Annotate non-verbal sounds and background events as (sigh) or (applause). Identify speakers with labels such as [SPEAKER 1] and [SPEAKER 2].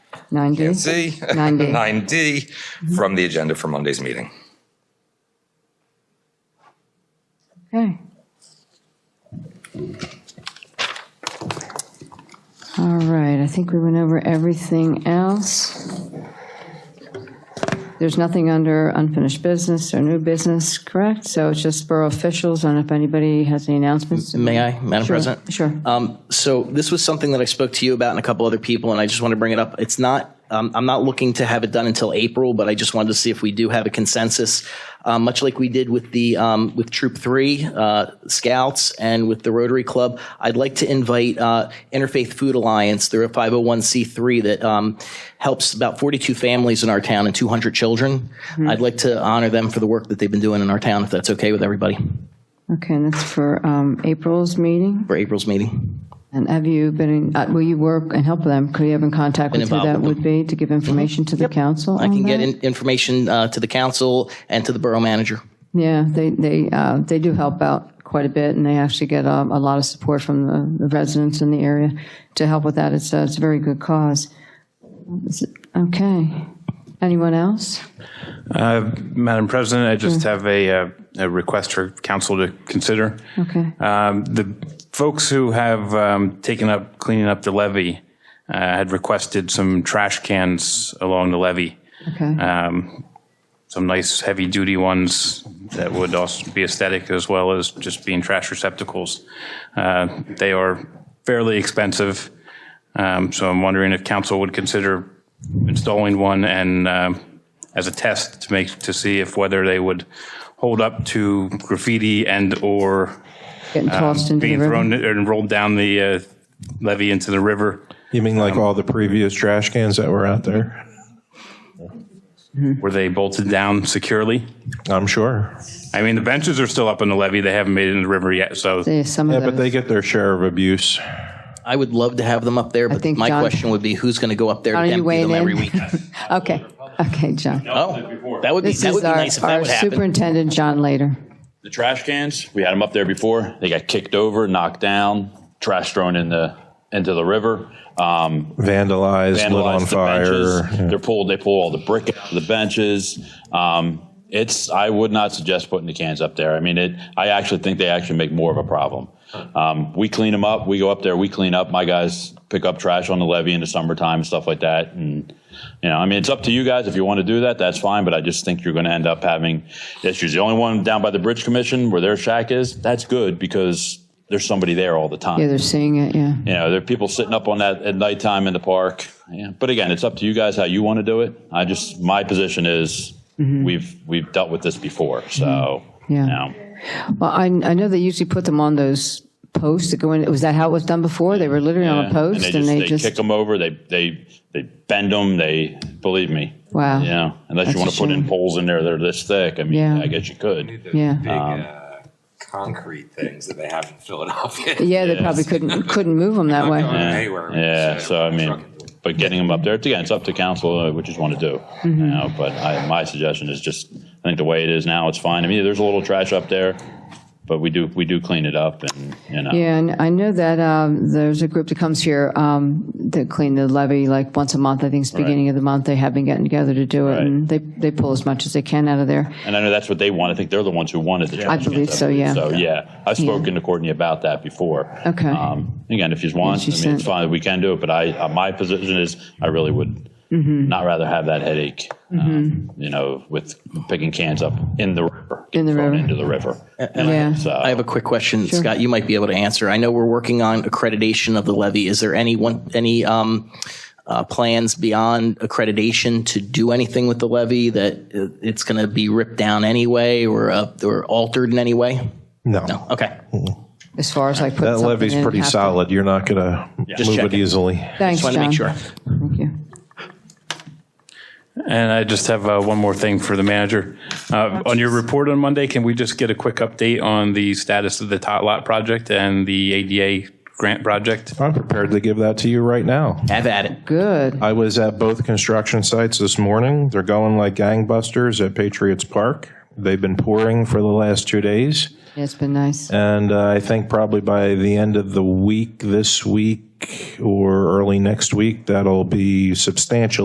[SPEAKER 1] Nine D?
[SPEAKER 2] C, (laughs)
[SPEAKER 1] Nine D.
[SPEAKER 2] 9D, from the agenda for Monday's meeting.
[SPEAKER 1] Okay. All right, I think we went over everything else. There's nothing under unfinished business or new business, correct? So it's just borough officials, and if anybody has any announcements?
[SPEAKER 3] May I, Madam
[SPEAKER 1] Sure,
[SPEAKER 3] President?
[SPEAKER 1] Sure.
[SPEAKER 3] Um, so this was something that I spoke to you about and a couple other people, and I just want to bring it up. It's not, um, I'm not looking to have it done until April, but I just wanted to see if we do have a consensus, um, much like we did with the, um, with Troop Three, uh, Scouts and with the Rotary Club. I'd like to invite, uh, Interfaith Food Alliance. They're a 501c3 that, um, helps about 42 families in our town and 200 children. I'd like to honor them for the work that they've been doing in our town, if that's okay with everybody,
[SPEAKER 1] Okay, and that's for um, April's meeting?
[SPEAKER 3] for April's meeting.
[SPEAKER 1] And have you been, in- uh, will you work and help them? Could you have in contact with who
[SPEAKER 3] involved
[SPEAKER 1] that
[SPEAKER 3] with
[SPEAKER 1] would
[SPEAKER 3] Mm-hmm.
[SPEAKER 1] be to give information to the council
[SPEAKER 3] I
[SPEAKER 1] on
[SPEAKER 3] can get
[SPEAKER 1] that?
[SPEAKER 3] in- information uh, to the council and to the borough manager.
[SPEAKER 1] Yeah, they, they, uh, they do help out quite a bit, and they actually get um, a lot of support from the- the residents in the area to help with that. It's, uh, it's a very good cause. Is it- Okay. Anyone else?
[SPEAKER 4] Madam President, I just have a, uh, a request for council to consider.
[SPEAKER 1] Okay.
[SPEAKER 4] Um, The folks who have um, taken up cleaning up the levee uh, had requested some trash cans along the levee,
[SPEAKER 1] Okay.
[SPEAKER 4] Uh, some nice heavy-duty ones that would also be aesthetic as well as just being trash receptacles. Uh, They are fairly expensive, um, so I'm wondering if council would consider installing one and um, as a test to make, to see if whether they would hold up to graffiti and/or
[SPEAKER 1] Getting tossed into the
[SPEAKER 4] um, being
[SPEAKER 1] river.
[SPEAKER 4] thrown and rolled down the uh, levee into the river
[SPEAKER 5] You mean like all the previous trash cans that were out there?
[SPEAKER 4] were they bolted down securely
[SPEAKER 5] I'm sure.
[SPEAKER 4] i mean the benches are still up on the levee they haven't made it in the river yet so
[SPEAKER 1] Yeah, Some
[SPEAKER 5] Yeah,
[SPEAKER 1] of
[SPEAKER 5] but they
[SPEAKER 1] those.
[SPEAKER 5] get their share of abuse.
[SPEAKER 3] I would love to have them up there, but
[SPEAKER 1] think
[SPEAKER 3] my
[SPEAKER 1] John-
[SPEAKER 3] question would be, who's going to go up there
[SPEAKER 1] John, are
[SPEAKER 3] to
[SPEAKER 1] you
[SPEAKER 3] empty them
[SPEAKER 1] weighing
[SPEAKER 3] every
[SPEAKER 1] in?
[SPEAKER 3] week?
[SPEAKER 1] (laughs) Okay, okay, John.
[SPEAKER 3] Oh, that would be,
[SPEAKER 1] This
[SPEAKER 3] that would
[SPEAKER 1] is
[SPEAKER 3] be
[SPEAKER 1] our,
[SPEAKER 3] nice if that
[SPEAKER 1] our
[SPEAKER 3] would happen.
[SPEAKER 1] superintendent, John Later.
[SPEAKER 6] The trash cans, we had them up there before. They got kicked over, knocked down, trash thrown in the into the river. Um,
[SPEAKER 5] Vandalized, lit on
[SPEAKER 6] vandalized the
[SPEAKER 5] fire.
[SPEAKER 6] benches. They're pulled. They pull all the brick out of the benches. Um, it's. I would not suggest putting the cans up there. I mean, it. I actually think they actually make more of a problem. Um, we clean them up. We go up there. We clean up. My guys pick up trash on the levee in the summertime and stuff like that. And you know, I mean, it's up to you guys if you want to do that. That's fine. But I just think you're going to end up having issues. The only one down by the bridge commission where their shack is. That's good because there's somebody there all the time
[SPEAKER 1] Yeah, they're seeing it, yeah.
[SPEAKER 6] you know, there are people sitting up on that at nighttime in the park. Yeah. But again, it's up to you guys how you want to do it. I just my position is we've we've dealt with this before, so
[SPEAKER 1] Mm-hmm. Yeah.
[SPEAKER 6] you know.
[SPEAKER 1] Well, I, I know they usually put them on those posts that go in, was that how it was done before? They were literally on
[SPEAKER 6] Yeah.
[SPEAKER 1] a post and they
[SPEAKER 6] kick
[SPEAKER 1] just,
[SPEAKER 6] them over. They they they bend them. They believe me.
[SPEAKER 1] wow.
[SPEAKER 6] Yeah, unless
[SPEAKER 1] That's a
[SPEAKER 6] you want to put in
[SPEAKER 1] shame.
[SPEAKER 6] poles in there that are this thick. I mean,
[SPEAKER 1] Yeah.
[SPEAKER 6] I guess you could.
[SPEAKER 1] Yeah. Um,
[SPEAKER 7] big uh, concrete things that they have in Philadelphia.
[SPEAKER 1] (laughs) Yeah, they probably couldn't, couldn't move them that way.
[SPEAKER 7] Yeah.
[SPEAKER 6] Yeah. Yeah, so I mean, but getting them up there, it's, again, it's up to council uh, what you want to do. You know, but I, my suggestion is just, I think the way it is now, it's fine. I mean, there's a little trash up there, but we do we do clean it up, and you know,
[SPEAKER 1] Yeah, and I know that um, there's a group that comes here um, to clean the levee like once a month. I think it's beginning of the month. They have been getting together to do it,
[SPEAKER 6] Right.
[SPEAKER 1] and they they pull as much as they can out of there.
[SPEAKER 6] and I know that's what they want. I think they're the ones who wanted the. trash cans
[SPEAKER 1] believe
[SPEAKER 6] up
[SPEAKER 1] so,
[SPEAKER 6] there.
[SPEAKER 1] yeah.
[SPEAKER 6] So yeah, I've spoken to Courtney about that before.
[SPEAKER 1] Okay.
[SPEAKER 6] Um, again, if you want, I
[SPEAKER 1] she
[SPEAKER 6] mean,
[SPEAKER 1] said-
[SPEAKER 6] it's fine. We can do it, but I uh, my position is I really would.
[SPEAKER 1] Mm-hmm.
[SPEAKER 6] Not rather have that headache, um, you know, with picking cans up in the river,
[SPEAKER 1] In the
[SPEAKER 6] thrown
[SPEAKER 1] river.
[SPEAKER 6] into the river.
[SPEAKER 1] Yeah.
[SPEAKER 6] So
[SPEAKER 3] I have a quick question, Scott, you might be able to answer. I know we're working on accreditation of the levy. Is there any one, any, um, uh, plans beyond accreditation to do anything with the levy that uh, it's going to be ripped down anyway or, uh, or altered in any way?
[SPEAKER 5] No.
[SPEAKER 3] No, okay.
[SPEAKER 1] As far as like put
[SPEAKER 5] That
[SPEAKER 1] something
[SPEAKER 5] levee's
[SPEAKER 1] in,
[SPEAKER 5] pretty
[SPEAKER 1] have to-
[SPEAKER 5] solid. You're not going to
[SPEAKER 3] Just
[SPEAKER 5] move it
[SPEAKER 3] checking.
[SPEAKER 5] easily.
[SPEAKER 1] Thanks,
[SPEAKER 3] Just wanted to
[SPEAKER 1] John.
[SPEAKER 3] make sure.
[SPEAKER 1] Thank you.
[SPEAKER 4] and i just have uh, one more thing for the manager uh, on your report on monday can we just get a quick update on the status of the tot lot project and the ada grant project
[SPEAKER 5] I'm prepared to give that to you right now.
[SPEAKER 3] Have at it.
[SPEAKER 1] Good.
[SPEAKER 5] I was at both construction sites this morning. They're going like gangbusters at Patriots Park. They've been pouring for the last two days.
[SPEAKER 1] Yeah, it's been nice.
[SPEAKER 5] And uh, I think probably by the end of the week, this week or early next week, that'll be substantially.